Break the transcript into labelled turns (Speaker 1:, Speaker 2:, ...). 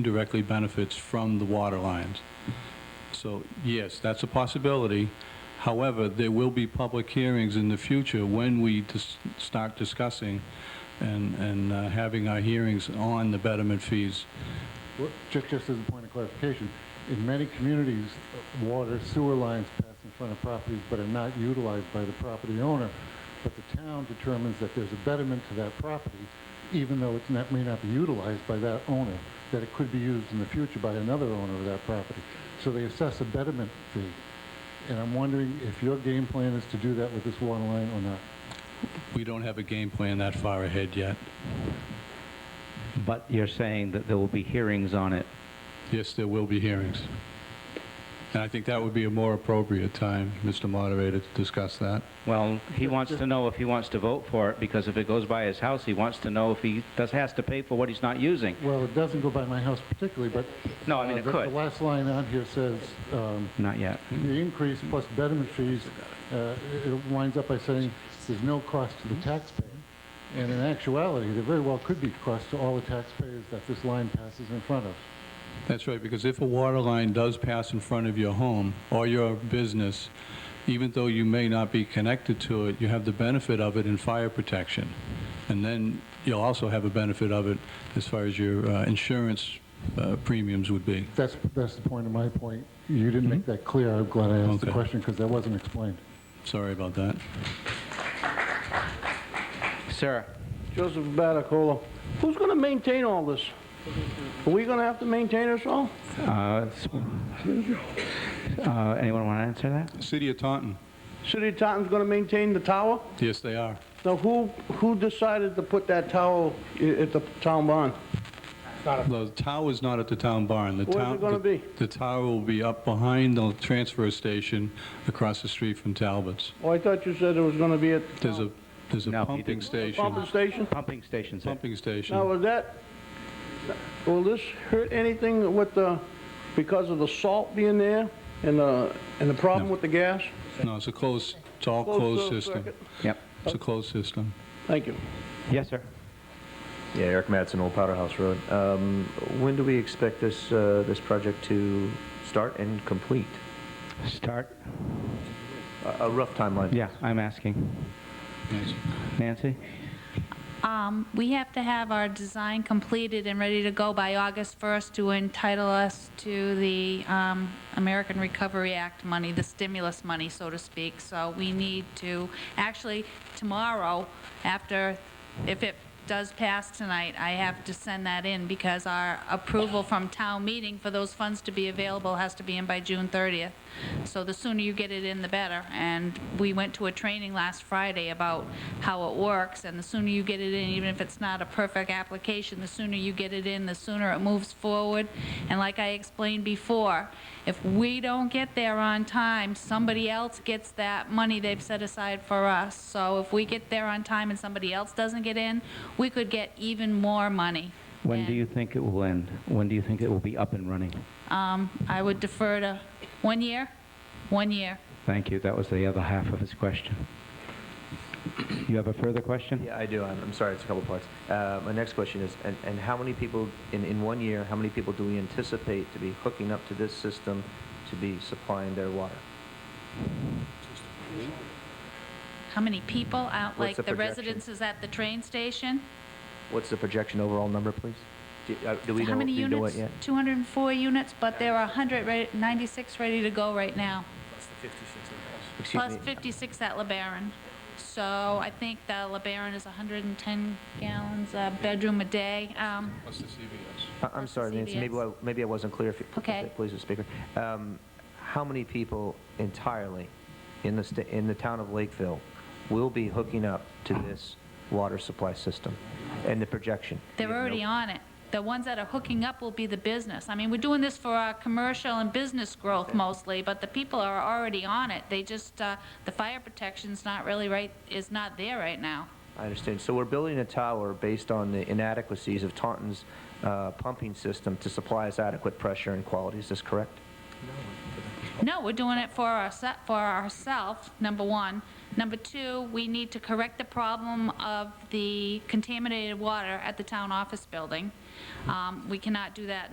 Speaker 1: indirectly benefits from the water lines. So, yes, that's a possibility. However, there will be public hearings in the future when we dis- start discussing and, and uh, having our hearings on the betterment fees.
Speaker 2: Well, ju- Just as a point of clarification, in many communities, water sewer lines pass in front of properties but are not utilized by the property owner, but the town determines that there's a betterment to that property, even though it's not, may not be utilized by that owner, that it could be used in the future by another owner of that property. So they assess a betterment fee. And I'm wondering if your game plan is to do that with this water line or not.
Speaker 1: We don't have a game plan that far ahead yet.
Speaker 3: But you're saying that there will be hearings on it.
Speaker 1: Yes, there will be hearings. And I think that would be a more appropriate time, Mr. Moderator, to discuss that.
Speaker 3: Well, he wants to know if he wants to vote for it, because if it goes by his house, he wants to know if he does, has to pay for what he's not using.
Speaker 2: Well, it doesn't go by my house particularly, but...
Speaker 3: No, I
Speaker 2: uh,
Speaker 3: mean, it
Speaker 2: the-
Speaker 3: could.
Speaker 2: The last line on here says, um,
Speaker 3: Not yet.
Speaker 2: The increase plus betterment fees, uh, it winds up by saying there's no cost to the taxpayer. And in actuality, there very well could be cost to all the taxpayers that this line passes in front of.
Speaker 1: That's right, because if a water line does pass in front of your home or your business, even though you may not be connected to it, you have the benefit of it in fire protection. And then you'll also have a benefit of it as far as your uh, insurance uh, premiums would be.
Speaker 2: That's, that's the point of my point. You didn't make that clear. I'm glad I asked the
Speaker 1: Okay.
Speaker 2: question because that wasn't explained.
Speaker 1: Sorry about that.
Speaker 3: Sarah,
Speaker 4: Joseph Batacola, who's going to maintain all this? Are we going to have to maintain this all?
Speaker 3: uh, s- uh, anyone want to answer that?
Speaker 1: City of Taunton,
Speaker 4: City of Taunton's going to maintain the tower?
Speaker 1: yes, they are.
Speaker 4: Now, who, who decided to put that tower i- at the town barn?
Speaker 1: The tower is not at the town barn. The
Speaker 4: Where's it
Speaker 1: town-
Speaker 4: gonna
Speaker 1: the-
Speaker 4: be?
Speaker 1: The tower will be up behind the transfer station across the street from Talbot's.
Speaker 4: Oh, I thought you said it was going to be at
Speaker 1: There's a, there's a
Speaker 3: No, he
Speaker 1: pumping
Speaker 3: didn't.
Speaker 4: the
Speaker 1: station,
Speaker 4: pumping station?
Speaker 3: Pumping stations.
Speaker 1: pumping station.
Speaker 4: Now, is that, will this hurt anything with the, because of the salt being there and the, and the problem
Speaker 1: No.
Speaker 4: with the gas?
Speaker 1: No, it's a closed, it's all
Speaker 4: Closed
Speaker 1: closed
Speaker 4: closed
Speaker 1: system.
Speaker 4: circuit.
Speaker 3: Yep.
Speaker 1: It's a closed system.
Speaker 4: Thank you.
Speaker 3: Yes, sir.
Speaker 5: Yeah, Eric Matson, Old Powder House Road. Um, when do we expect this, uh, this project to start and complete?
Speaker 3: Start.
Speaker 5: A, a rough timeline.
Speaker 3: Yeah, I'm asking.
Speaker 1: Yes.
Speaker 3: Nancy?
Speaker 6: Um, we have to have our design completed and ready to go by August 1st to entitle us to the, um, American Recovery Act money, the stimulus money, so to speak. So we need to, actually, tomorrow, after, if it does pass tonight, I have to send that in because our approval from town meeting for those funds to be available has to be in by June 30th. So the sooner you get it in, the better. And we went to a training last Friday about how it works, and the sooner you get it in, even if it's not a perfect application, the sooner you get it in, the sooner it moves forward. And like I explained before, if we don't get there on time, somebody else gets that money they've set aside for us. So if we get there on time and somebody else doesn't get in, we could get even more money.
Speaker 3: When do
Speaker 6: And-
Speaker 3: you think it will end? When do you think it will be up and running?
Speaker 6: Um, I would defer to, one year? One year.
Speaker 3: Thank you. That was the other half of his question. You have a further question?
Speaker 5: Yeah, I do. I'm, I'm sorry, it's a couple parts. Uh, my next question is, and, and how many people, in, in one year, how many people do we anticipate to be hooking up to this system to be supplying their water?
Speaker 6: How many people out, like
Speaker 5: What's the
Speaker 6: the
Speaker 5: projection?
Speaker 6: residences at the train station?
Speaker 5: What's the projection overall number, please? Do, uh, do we
Speaker 6: How
Speaker 5: know,
Speaker 6: many
Speaker 5: do you know it yet?
Speaker 6: units? 204 units, but there are 196 ready to go right now,
Speaker 5: Excuse
Speaker 6: plus
Speaker 5: me.
Speaker 6: 56 at LeBaron. So I think the LeBaron is 110 gallons a bedroom a day. Um,
Speaker 1: Plus the CVS.
Speaker 5: I- I'm
Speaker 6: versus
Speaker 5: sorry, Nancy, maybe I,
Speaker 6: CVS.
Speaker 5: maybe I wasn't clear, if you could
Speaker 6: Okay.
Speaker 5: please, the speaker. Um, How many people entirely in the, sta- in the town of Lakeville will be hooking up to this water supply system and the projection?
Speaker 6: They're already on it. The ones that are hooking up will be the business. I mean, we're doing this for our commercial and business growth mostly, but the people are already on it. They just, uh, the fire protection's not really right, is not there right now.
Speaker 5: I understand. So we're building a tower based on the inadequacies of Taunton's uh, pumping system to supply us adequate pressure and quality. Is this correct?
Speaker 6: No, we're doing it for ourse- for ourselves, number one. Number two, we need to correct the problem of the contaminated water at the town office building. Um, we cannot do that